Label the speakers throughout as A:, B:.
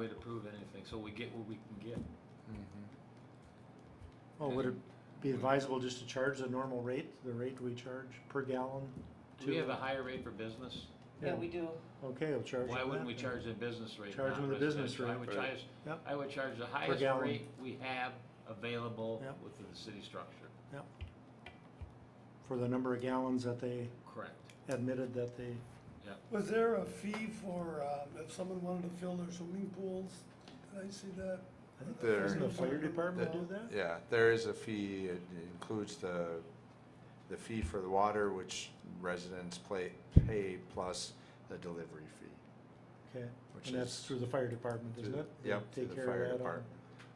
A: to prove anything, so we get what we can get.
B: Well, Oh, would it be advisable just to charge the normal rate, the rate we charge per gallon?
A: Do we
B: to-
A: have a higher rate for business?
C: Yeah, we do.
B: Okay, we'll charge
A: Why
B: them
A: wouldn't
B: that
A: we
B: then.
A: charge the business rate?
B: Charge
A: not
B: them the business
A: residential? I
B: rate.
A: would
D: Right.
A: charge-
B: Yep.
A: I would charge the highest
B: gallon.
A: rate we have available
B: Yep.
A: within the city structure.
B: For the number of gallons that they
A: Correct.
B: admitted that they,
E: Was there a fee for, um, if someone wanted to fill their swimming pools? Did I see that?
B: I think
D: There-
B: doesn't the fire department do that?
D: Yeah, there is a fee, it includes the, the fee for the water, which residents play, pay, plus the delivery fee,
B: Okay,
D: which is.
B: and that's through the fire department,
D: through
B: isn't
D: the-
B: it? They
D: Yep, through
B: Take
D: the
B: care
D: fire
B: of that on
D: department,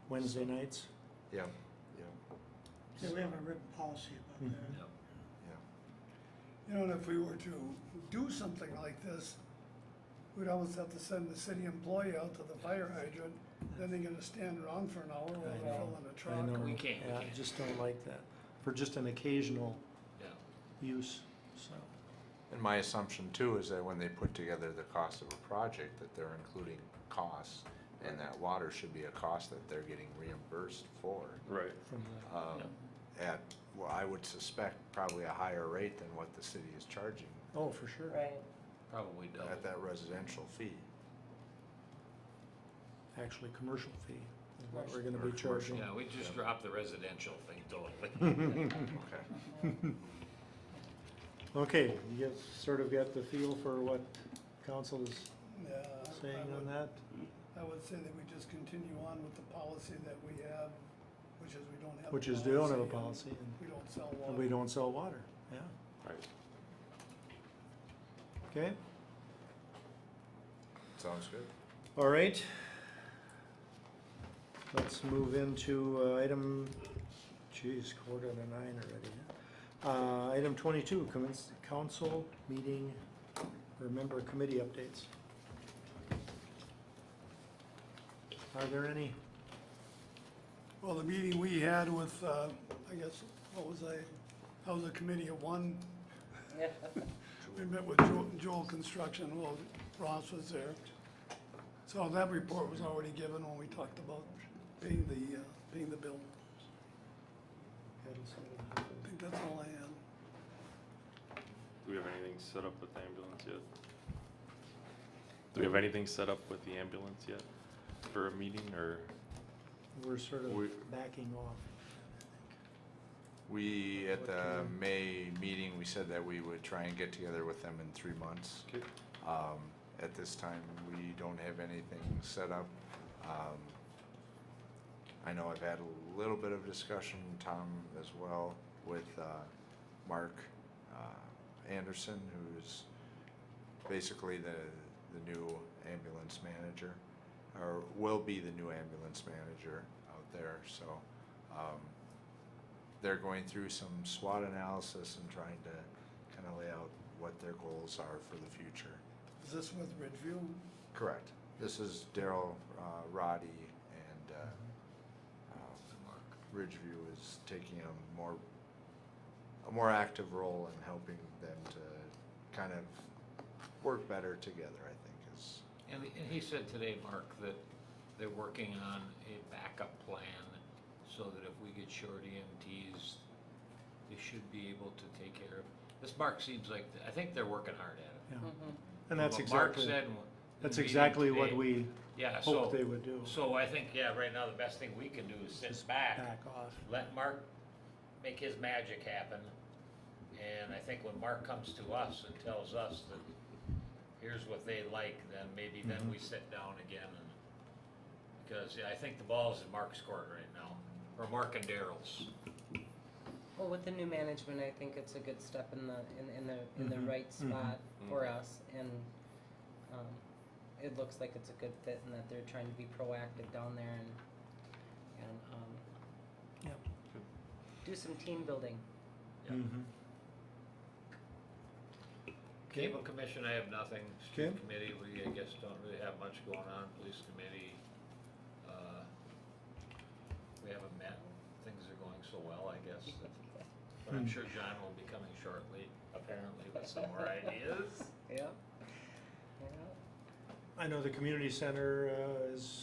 B: Wednesday nights?
D: yep, yep,
C: Yeah, we have a written policy about
B: Mm-hmm.
C: that.
A: Yep.
D: yep.
E: You know, and if we were to do something like this, we'd almost have to send the city employee out to the fire hydrant, then they're gonna stand around for an hour while
B: I
E: they're
B: know,
E: filling Oh, a
B: I know.
E: truck.
A: We can't, we
B: Yeah, I
A: can't.
B: just don't like that, for just an occasional
A: Yeah.
B: use, so.
D: And my assumption too is that when they put together the cost of a project, that they're including costs, and that water should be a cost that they're getting reimbursed for.
F: Right.
B: from the-
D: um, At, well, I would suspect probably a higher rate than what the city is charging
B: Oh, for sure.
C: Right.
A: Probably double.
D: at that residential fee.
B: Actually, commercial fee is what we're gonna
D: Or
B: be
D: commercial.
B: charging.
A: Yeah, we just dropped the residential thing totally.
D: Hmm. Okay.
B: Okay, you guys sort of got the feel for what council is
E: Yeah, I- I
B: saying on
E: would,
B: that?
E: I would say that we just continue on with the policy that we have, which is we don't have. a
B: Which is, they don't have a
E: and
B: policy and
E: We don't sell
B: and we
E: water.
B: don't sell water, yeah,
F: Right.
B: okay?
D: Sounds good.
B: All right. Let's move into uh, item, geez, quarter to nine already. huh? Uh, item twenty-two, commence council meeting, or member committee updates. Are there any?
E: Well, the meeting we had with, uh, I guess, what was I, I was a committee of one,
C: Yeah.
E: We met with Joel- Joel Construction, well, Ross was there. So that report was already given when we talked about paying the, uh, paying the bill. I think that's all I had.
F: Do we have anything set up with the ambulance yet? Do we have anything set up with the ambulance yet for a meeting or?
B: We're sort
D: We-
B: of backing off.
D: We, at
B: What
D: the
B: can-
D: May meeting, we said that we would try and get together with them in three months.
F: Okay.
D: Um, at this time, we don't have anything set up. Um, I know I've had a little bit of discussion, Tom as well, with, uh, Mark, uh, Anderson, who's basically the, the new ambulance manager, or will be the new ambulance manager out there, so, um, they're going through some SWOT analysis and trying to kind of lay out what their goals are for the future.
E: Is this with Ridgeview?
D: Correct. This is Daryl, uh, Roddy and, uh, uh, Ridgeview is taking a more, a more active role in helping them to kind of work better together, I think is,
A: And, and he said today, Mark, that they're working on a backup plan so that if we get short EMTs, they should be able to take care of. This Mark seems like, I think they're working hard at it.
B: Yeah,
C: Mm-hmm.
B: and that's
A: What Mark
B: exactly,
A: said in the
B: that's
A: meeting
B: exactly what
A: today,
B: we
A: Yeah,
B: hoped they
A: so,
B: would do.
A: so I think, yeah, right now, the best thing we can do is sit back,
B: Back off.
A: let Mark make his magic happen. And I think when Mark comes to us and tells us that here's what they like, then maybe then we sit down again and, because yeah, I think the ball's in Mark's court right now, or Mark and Daryl's.
G: Well, with the new management, I think it's a good step in the, in, in the, in
A: Mm-hmm.
B: Mhm,
G: the right
B: mhm.
G: spot for us and, um, it looks like it's a good fit and that they're trying to be proactive down there and, and, um,
B: Yep.
F: Good.
G: do some team building.
A: Yeah.
B: Mhm.
A: Cable Commission, I have nothing. Street
B: Okay.
A: Committee, we, I guess, don't really have much going on. Police Committee, uh, we haven't met. Things are going so well, I guess. that- But I'm
B: Hmm.
A: sure John will be coming shortly, apparently, with some more ideas.
G: Yeah. Yeah.
B: I know the community center, uh, is